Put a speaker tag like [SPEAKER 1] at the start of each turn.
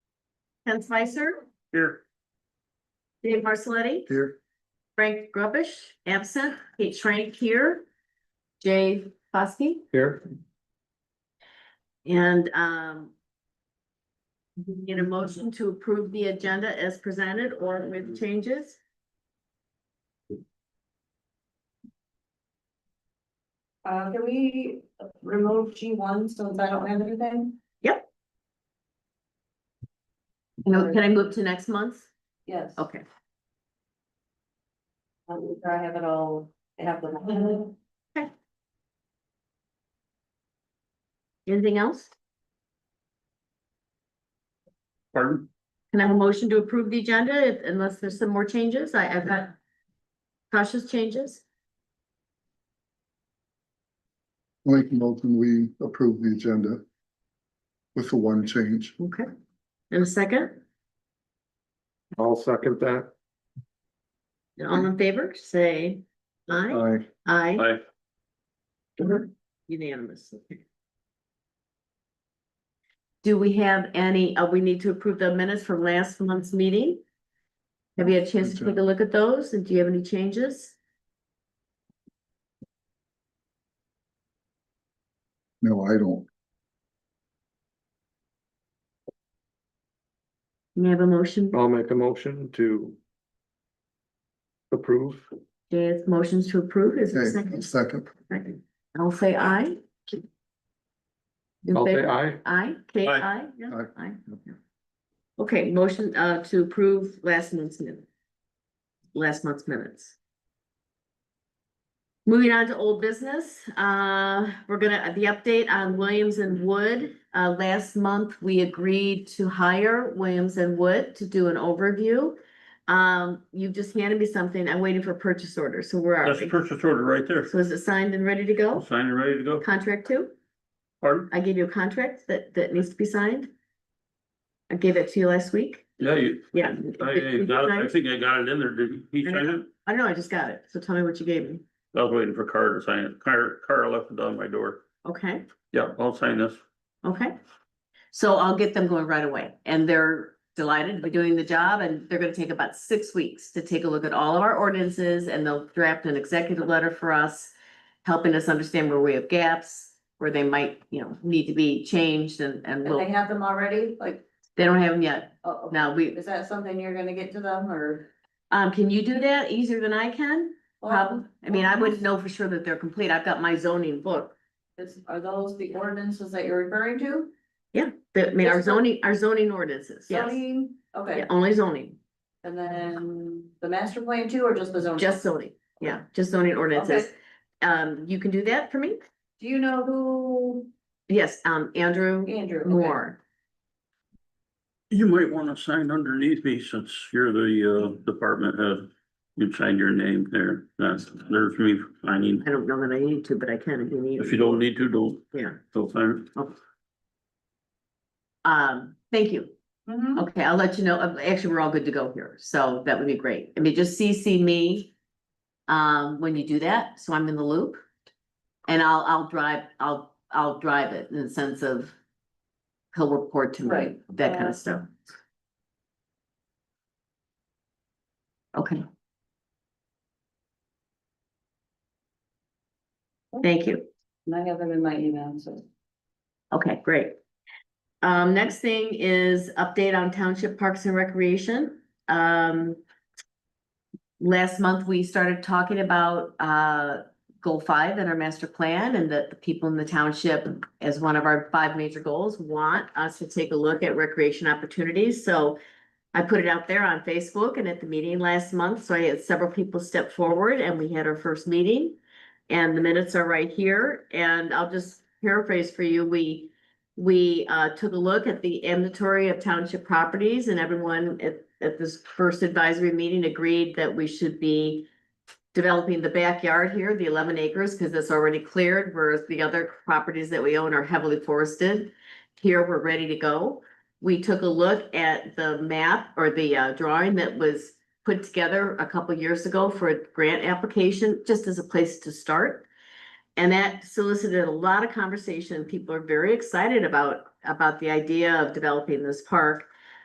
[SPEAKER 1] Ken Spicer,
[SPEAKER 2] Here.
[SPEAKER 1] Dave Marcelletti,
[SPEAKER 2] Here.
[SPEAKER 1] Frank Grubish, absent, Kate Schrank here. Jay Foskey
[SPEAKER 2] Here.
[SPEAKER 1] and um. we Need a motion to approve the agenda as presented or with changes?
[SPEAKER 3] Uh, can we remove G one since I don't have anything?
[SPEAKER 1] No, Can I move to next month?
[SPEAKER 3] Yes.
[SPEAKER 1] Okay,
[SPEAKER 3] Um, I have it all, I have them.
[SPEAKER 1] anything else?
[SPEAKER 2] Pardon?
[SPEAKER 1] Can I have a motion to approve the agenda if- unless there's some more changes? I, I've got cautious changes.
[SPEAKER 4] Lake Milton, we approve the agenda with the one change.
[SPEAKER 1] Okay. And a second,
[SPEAKER 2] I'll second that.
[SPEAKER 1] And all in favor, say aye,
[SPEAKER 4] Aye.
[SPEAKER 1] aye,
[SPEAKER 2] Aye.
[SPEAKER 1] unanimous. Do we have any, uh, we need to approve the minutes from last month's meeting? Have you had a chance to take a look at those? And do you have any changes?
[SPEAKER 4] No, I don't.
[SPEAKER 1] May I have a motion?
[SPEAKER 2] I'll make a motion to approve.
[SPEAKER 1] Jay's motions to approve is there a
[SPEAKER 4] Okay,
[SPEAKER 1] second.
[SPEAKER 4] second.
[SPEAKER 1] Second. I'll say aye. In
[SPEAKER 2] I'll say
[SPEAKER 1] favor?
[SPEAKER 2] aye.
[SPEAKER 1] Aye, Kate,
[SPEAKER 2] Aye.
[SPEAKER 1] aye, yeah,
[SPEAKER 4] Aye.
[SPEAKER 1] aye. yeah. Okay, motion uh to approve last month's minute. Last month's minutes. Moving on to old business, uh, we're gonna, the update on Williams and Wood. Uh, last month, we agreed to hire Williams and Wood to do an overview. Um, you just handed me something. I'm waiting for purchase order, so where are
[SPEAKER 5] That's the
[SPEAKER 1] we?
[SPEAKER 5] purchase order right there.
[SPEAKER 1] So is it signed and ready to go?
[SPEAKER 5] Signed and ready to go.
[SPEAKER 1] Contract two?
[SPEAKER 5] Pardon?
[SPEAKER 1] I gave you a contract that, that needs to be signed. I gave it to you last week.
[SPEAKER 5] Yeah, you,
[SPEAKER 1] Yeah.
[SPEAKER 5] I, I got it. I think I got it in there. Did he sign it?
[SPEAKER 1] I don't know, I just got it. So tell me what you gave me.
[SPEAKER 5] I was waiting for Carter to sign it. Carter, Carter left it on my door.
[SPEAKER 1] Okay,
[SPEAKER 5] Yeah, I'll sign this.
[SPEAKER 1] okay. So I'll get them going right away and they're delighted to be doing the job and they're gonna take about six weeks to take a look at all of our ordinances and they'll draft an executive letter for us. Helping us understand where we have gaps, where they might, you know, need to be changed and, and
[SPEAKER 3] Do they
[SPEAKER 1] we'll,
[SPEAKER 3] have them already? Like,
[SPEAKER 1] they don't have them yet.
[SPEAKER 3] oh, okay.
[SPEAKER 1] Now we,
[SPEAKER 3] is that something you're gonna get to them or?
[SPEAKER 1] um, can you do that easier than I can? Probably, I mean, I wouldn't know for sure that they're complete, I've got my zoning book,
[SPEAKER 3] Is, are those the ordinances that you're referring to?
[SPEAKER 1] that, I mean, our
[SPEAKER 3] Yes, sir.
[SPEAKER 1] zoning, our zoning ordinances, yes,
[SPEAKER 3] Zoning?
[SPEAKER 1] Yeah,
[SPEAKER 3] Okay,
[SPEAKER 1] only zoning,
[SPEAKER 3] and then the master plan too, or just the zoning?
[SPEAKER 1] just zoning, yeah, just zoning ordinances.
[SPEAKER 3] Okay.
[SPEAKER 1] Um, you can do that for me?
[SPEAKER 3] Do you know who
[SPEAKER 1] Yes, um, Andrew
[SPEAKER 3] Andrew? okay.
[SPEAKER 1] Moore,
[SPEAKER 5] You might wanna sign underneath me since you're the, uh, department head. You signed your name there. That's, there's me signing.
[SPEAKER 1] I don't know that I need to, but I can if you need.
[SPEAKER 5] If you don't need to, don't,
[SPEAKER 1] Yeah,
[SPEAKER 5] don't sign it.
[SPEAKER 1] um, thank you,
[SPEAKER 3] Mhm.
[SPEAKER 1] okay, I'll let you know, Uh, actually, we're all good to go here, so that would be great, I mean, just CC me. Um, when you do that, so I'm in the loop. And I'll, I'll drive, I'll, I'll drive it in the sense of. He'll report to me,
[SPEAKER 3] Right.
[SPEAKER 1] that kind of stuff. Okay. Thank you,
[SPEAKER 3] And I have them in my email, so.
[SPEAKER 1] okay, great. Um, next thing is update on Township Parks and Recreation, um. Last month, we started talking about, uh, goal five in our master plan and that the people in the township as one of our five major goals want us to take a look at recreation opportunities. So I put it out there on Facebook and at the meeting last month, so I had several people step forward and we had our first meeting. And the minutes are right here and I'll just paraphrase for you. We we uh took a look at the inventory of township properties and everyone at at this first advisory meeting agreed that we should be developing the backyard here, the eleven acres, because it's already cleared, whereas the other properties that we own are heavily forested. Here, we're ready to go. We took a look at the map or the uh, drawing that was put together a couple years ago for a grant application, just as a place to start. And that solicited a lot of conversation. People are very excited about, about the idea of developing this park.